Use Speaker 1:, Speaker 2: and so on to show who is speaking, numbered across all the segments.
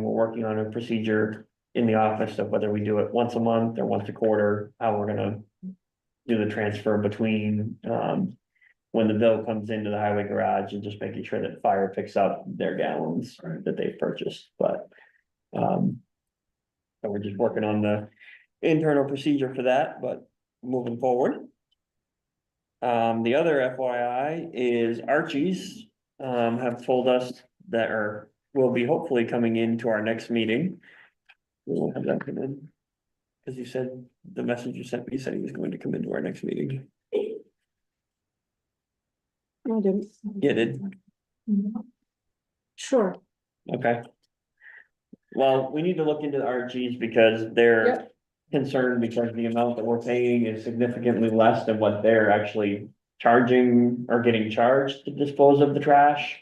Speaker 1: we're working on a procedure in the office of whether we do it once a month or once a quarter, how we're gonna do the transfer between, um, when the bill comes into the highway garage and just making sure that fire picks up their gallons
Speaker 2: Right.
Speaker 1: that they've purchased, but, um, so we're just working on the internal procedure for that, but moving forward. Um, the other FYI is Archie's, um, have told us that are, will be hopefully coming into our next meeting. We will have that come in. Cause you said, the message you sent me said he was going to come into our next meeting.
Speaker 3: I didn't.
Speaker 1: Yeah, did,
Speaker 3: Sure,
Speaker 1: okay. Well, we need to look into the RGs because they're
Speaker 3: Yep.
Speaker 1: concerned because the amount that we're paying is significantly less than what they're actually charging or getting charged to dispose of the trash.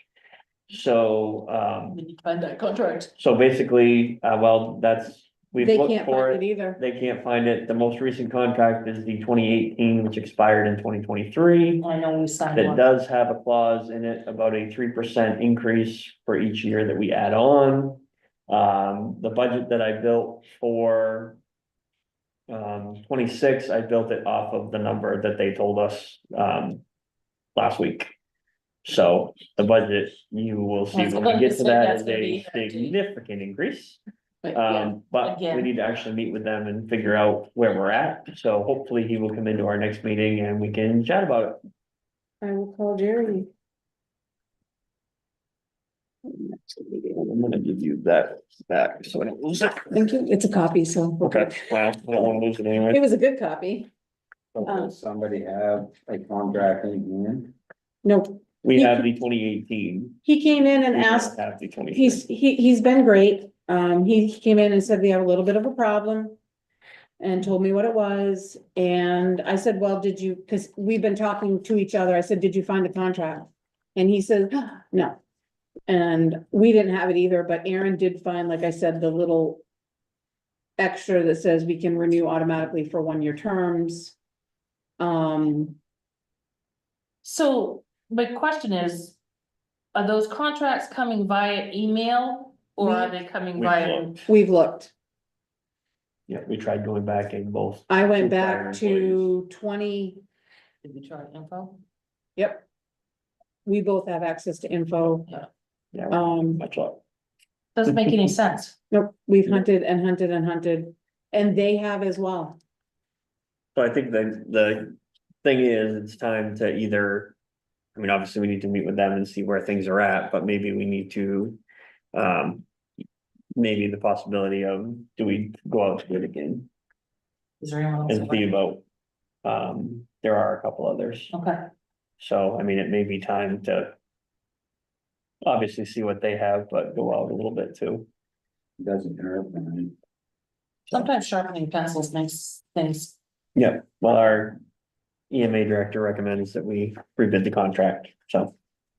Speaker 1: So, um,
Speaker 4: We need to find that contract.
Speaker 1: so basically, uh, well, that's, we've
Speaker 3: they
Speaker 1: looked
Speaker 3: can't
Speaker 1: for it.
Speaker 3: find it either.
Speaker 1: They can't find it. The most recent contract is the twenty eighteen, which expired in twenty twenty-three.
Speaker 4: I know we signed
Speaker 1: That
Speaker 4: one.
Speaker 1: does have a clause in it about a three percent increase for each year that we add on. Um, the budget that I built for. Um, twenty-six, I built it off of the number that they told us, um, last week. So the budget, you will see when we get to that is a significant increase.
Speaker 4: But yeah,
Speaker 1: Um, but we
Speaker 4: again.
Speaker 1: need to actually meet with them and figure out where we're at, so hopefully he will come into our next meeting and we can chat about it.
Speaker 3: I will call Jeremy.
Speaker 1: I'm gonna give you that back, so I don't lose it.
Speaker 3: Thank you. It's a copy, so. we're
Speaker 1: Okay,
Speaker 3: good.
Speaker 1: well, I don't wanna lose it
Speaker 3: It
Speaker 1: anyway.
Speaker 3: was a good copy.
Speaker 2: So
Speaker 3: Um,
Speaker 2: Does somebody have a contract in hand?
Speaker 3: No,
Speaker 1: We have the twenty eighteen.
Speaker 3: he came in and asked,
Speaker 1: Have the twenty.
Speaker 3: he's, he, he's been great. Um, he he came in and said, we have a little bit of a problem. And told me what it was. And I said, well, did you, because we've been talking to each other. I said, did you find the contract? And he said, no. And we didn't have it either, but Aaron did find, like I said, the little extra that says we can renew automatically for one-year terms. Um,
Speaker 4: So my question is, are those contracts coming via email or are they coming
Speaker 1: We
Speaker 4: via?
Speaker 1: looked.
Speaker 3: we've looked.
Speaker 1: Yeah, we tried going back in both.
Speaker 3: I
Speaker 1: Two
Speaker 3: went
Speaker 1: prior
Speaker 3: back to twenty,
Speaker 4: Did we try info?
Speaker 3: yep. We both have access to info.
Speaker 1: Yeah,
Speaker 3: Um,
Speaker 1: much luck.
Speaker 4: Doesn't make any sense.
Speaker 3: nope, we've hunted and hunted and hunted, and they have as well.
Speaker 1: So I think the, the thing is, it's time to either, I mean, obviously, we need to meet with them and see where things are at, but maybe we need to. Um, maybe the possibility of, do we go out to bid again
Speaker 4: Is there anyone?
Speaker 1: and
Speaker 4: else?
Speaker 1: see about? Um, there are a couple others,
Speaker 4: Okay,
Speaker 1: so I mean, it may be time to. Obviously, see what they have, but go out a little bit too.
Speaker 2: Doesn't hurt, man.
Speaker 4: sometimes sharpening pencils makes things,
Speaker 1: Yeah, well, our EMA director recommends that we rebid the contract, so.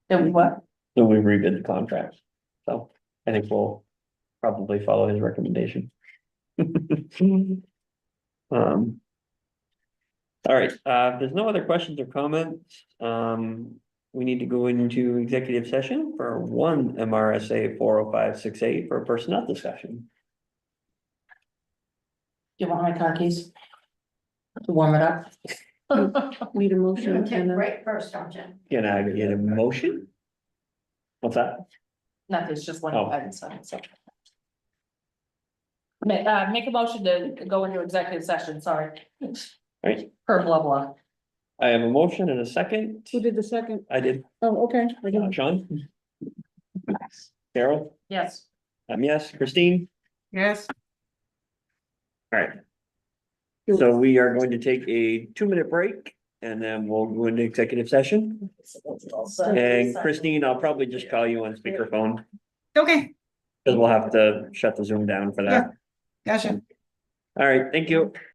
Speaker 4: that we what?
Speaker 1: So we rebid the contract, so I think we'll probably follow his recommendation. Um. All right, uh, if there's no other questions or comments, um, we need to go into executive session for one MRSA four oh five six eight for personnel discussion.
Speaker 4: You want my car keys? To warm it up?
Speaker 3: Need a
Speaker 5: You're
Speaker 3: motion
Speaker 5: gonna take a
Speaker 3: and a,
Speaker 5: break first, don't you?
Speaker 1: Can I get a motion? What's that?
Speaker 4: Nothing, it's just one.
Speaker 1: Oh.
Speaker 4: item, so it's okay. Ma- uh, make a motion to go into executive session, sorry.
Speaker 1: Right.
Speaker 4: Per blah blah.
Speaker 1: I have a motion and a second.
Speaker 3: who did the second?
Speaker 1: I did,
Speaker 3: Oh, okay. I
Speaker 1: uh,
Speaker 3: didn't-
Speaker 1: Sean? Carol?
Speaker 4: Yes.
Speaker 1: Um, yes, Christine?
Speaker 4: Yes.
Speaker 1: All right. So we are going to take a two-minute break and then we'll go into executive session. And Christine, I'll probably just call you on speakerphone
Speaker 6: Okay,
Speaker 1: because we'll have to shut the Zoom down for that.
Speaker 6: gotcha.
Speaker 1: All right, thank you.